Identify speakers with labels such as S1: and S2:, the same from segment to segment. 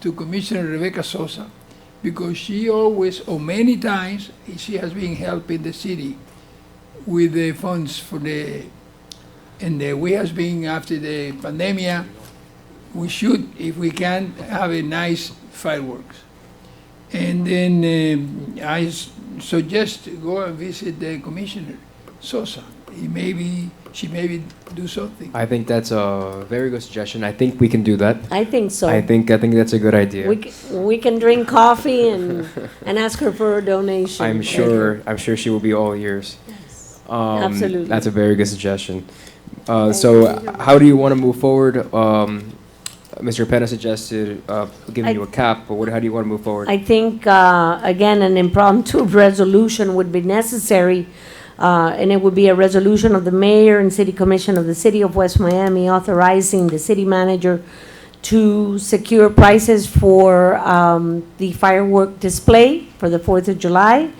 S1: to Commissioner Rebecca Sosa because she always, or many times, she has been helping the city with the funds for the, and uh, we has been after the pandemia, we should, if we can, have a nice fireworks. And then um, I s- suggest to go and visit the commissioner, Sosa. He maybe, she maybe do something.
S2: I think that's a very good suggestion. I think we can do that.
S3: I think so.
S2: I think I think that's a good idea.
S3: We, c- we can drink coffee and, and ask her for a donation.
S2: I'm sure I'm sure she will be all ears. Um,
S3: Absolutely.
S2: That's a very good suggestion. Uh, so how do you want to move forward? Um, Mr. Penna suggested uh, giving
S3: I-
S2: you a cap, but what, how do you want to move forward?
S3: I think, uh, again, an impromptu resolution would be necessary, uh, and it would be a resolution of the mayor and city commission of the city of West Miami authorizing the city manager to secure prices for um, the firework display for the Fourth of July,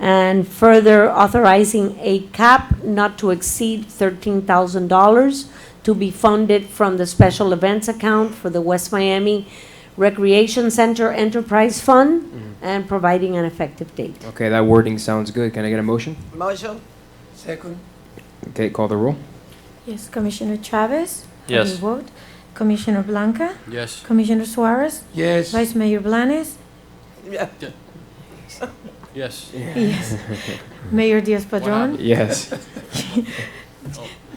S3: and further authorizing a cap not to exceed thirteen thousand dollars to be funded from the special events account for the West Miami Recreation Center Enterprise Fund and providing an effective date.
S2: okay, that wording sounds good. Can I get a motion?
S4: Motion?
S1: Second?
S2: Okay, call the roll.
S5: Yes, Commissioner Chavez? How do you
S6: Yes.
S5: vote? Commissioner Blanca?
S6: Yes.
S5: Commissioner Suarez?
S1: Yes.
S5: Vice Mayor Blanes?
S4: Yeah.
S6: Yes.
S5: Yes. Mayor Diaz-Padrón?
S2: Yes.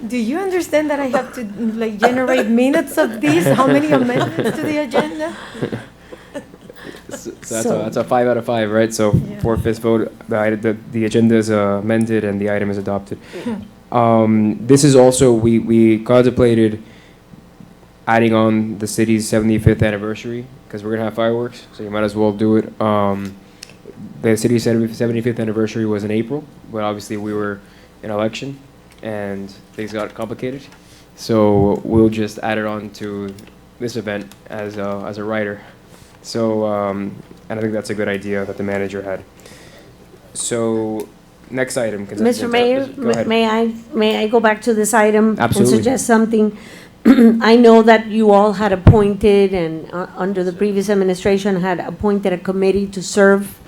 S5: Do you understand that I have to like generate minutes of these? How many amendments to the agenda?
S2: So that's,
S3: So-
S2: a, that's a five out of five, right? So
S5: Yeah.
S2: four fifths vote, the, ite- the, the agenda is uh, amended and the item is adopted. Um, this is also, we, we contemplated adding on the city's 75th anniversary because we're going to have fireworks, so you might as well do it. Um, the city's 75th anniversary was in April, but obviously we were in election and things got complicated. So we'll just add it on to this event as a, as a writer. So, um, and I think that's a good idea that the manager had. So, next item. consent
S3: Mr.
S2: agenda.
S3: Mayor,
S2: Go ahead.
S3: may I, may I go back to this item?
S2: Absolutely.
S3: And suggest something? I know that you all had appointed and, uh, under the previous administration, had appointed a committee to serve.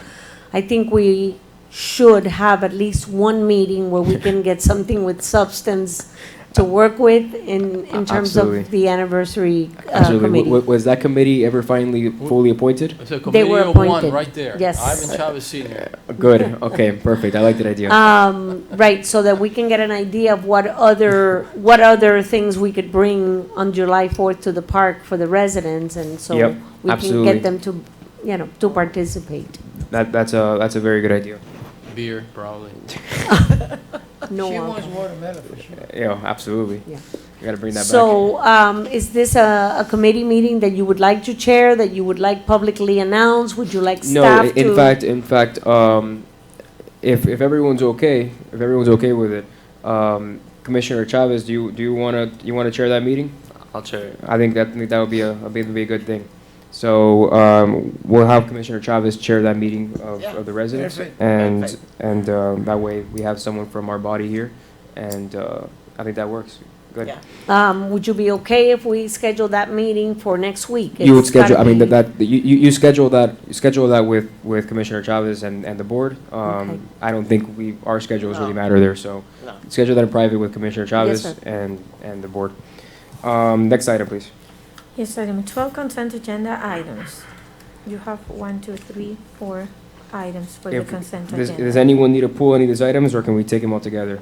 S3: I think we should have at least one meeting where we can get something with substance to work with in, in terms
S2: Absolutely.
S3: of the anniversary uh,
S2: Absolutely. W-
S3: committee.
S2: w- was that committee ever finally fully appointed?
S6: It's a
S3: They
S6: committee
S3: were
S6: of one
S3: appointed.
S6: right there.
S3: Yes.
S6: Ivan Chavez Senior.
S2: Uh, Good. Okay. Perfect. I like that idea.
S3: Um, right, so that we can get an idea of what other, what other things we could bring on July fourth to the park for the residents, and so
S2: Yep,
S3: we can
S2: absolutely.
S3: get them to, you know, to participate.
S2: that, that's a that's a very good idea.
S6: Beer, probably.
S3: No
S1: She
S3: alcohol.
S1: wants watermelon for sure.
S2: Yeah. Absolutely.
S3: Yeah.
S2: We gotta bring that back.
S3: So, um, is this a, a committee meeting that you would like to chair, that you would like publicly announce? Would you like
S2: No.
S3: staff
S2: i-
S3: to?
S2: in fact, in fact, um, if if everyone's okay, if everyone's okay with it, um, Commissioner Chavez, do you do you wanna you wanna chair that meeting?
S6: I'll chair it.
S2: I think that I think that would be a that'd be, be a good thing. So um, we'll have Commissioner Chavez chair that meeting of,
S4: Yeah.
S2: of the residents,
S1: Perfect.
S2: and
S4: Perfect.
S2: and um, that way we have someone from our body here, and uh, I think that works. Good.
S4: Yeah.
S3: Um, would you be okay if we schedule that meeting for next week?
S2: You would
S3: It's gotta
S2: schedule. I mean
S3: be-
S2: that, that you, you you schedule that you schedule that with, with Commissioner Chavez and, and the board. Um,
S3: Okay.
S2: I don't think we our schedules really
S4: No.
S2: matter there, so
S4: No.
S2: schedule that in private with Commissioner Chavez
S3: sir.
S2: and and the board. Um, next item, please.
S5: Yes, item twelve consent agenda items. You have one, two, three, four items for the
S2: If-
S5: consent
S2: Does,
S5: agenda.
S2: does anyone need to pull any of these items, or can we take them all together?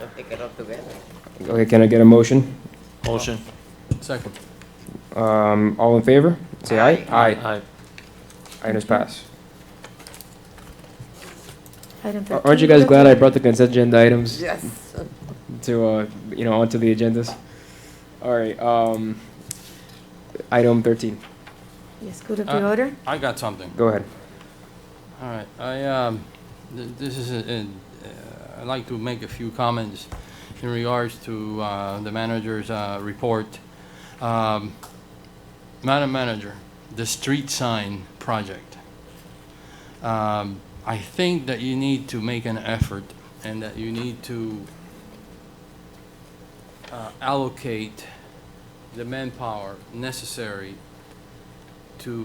S4: I'll take it up together.
S2: Okay, can I get a motion?
S6: Motion. Second.
S2: Um, all in favor? Say aye.
S6: Aye.
S2: Items pass.
S5: Item
S2: Ar- Aren't you
S5: 13,
S2: guys glad I brought the consent agenda items
S4: Yes.
S2: to, uh, you know, onto the agendas? All right, um, item thirteen,
S5: Yes, good of the
S6: Uh,
S5: order.
S6: I got something.
S2: go ahead.
S6: All right, I, um, th- this is, a- an- uh, I'd like to make a few comments in regards to uh, the manager's uh, report. Um, Madam Manager, the street sign project. Um, I think that you need to make an effort and that you need to uh, allocate the manpower necessary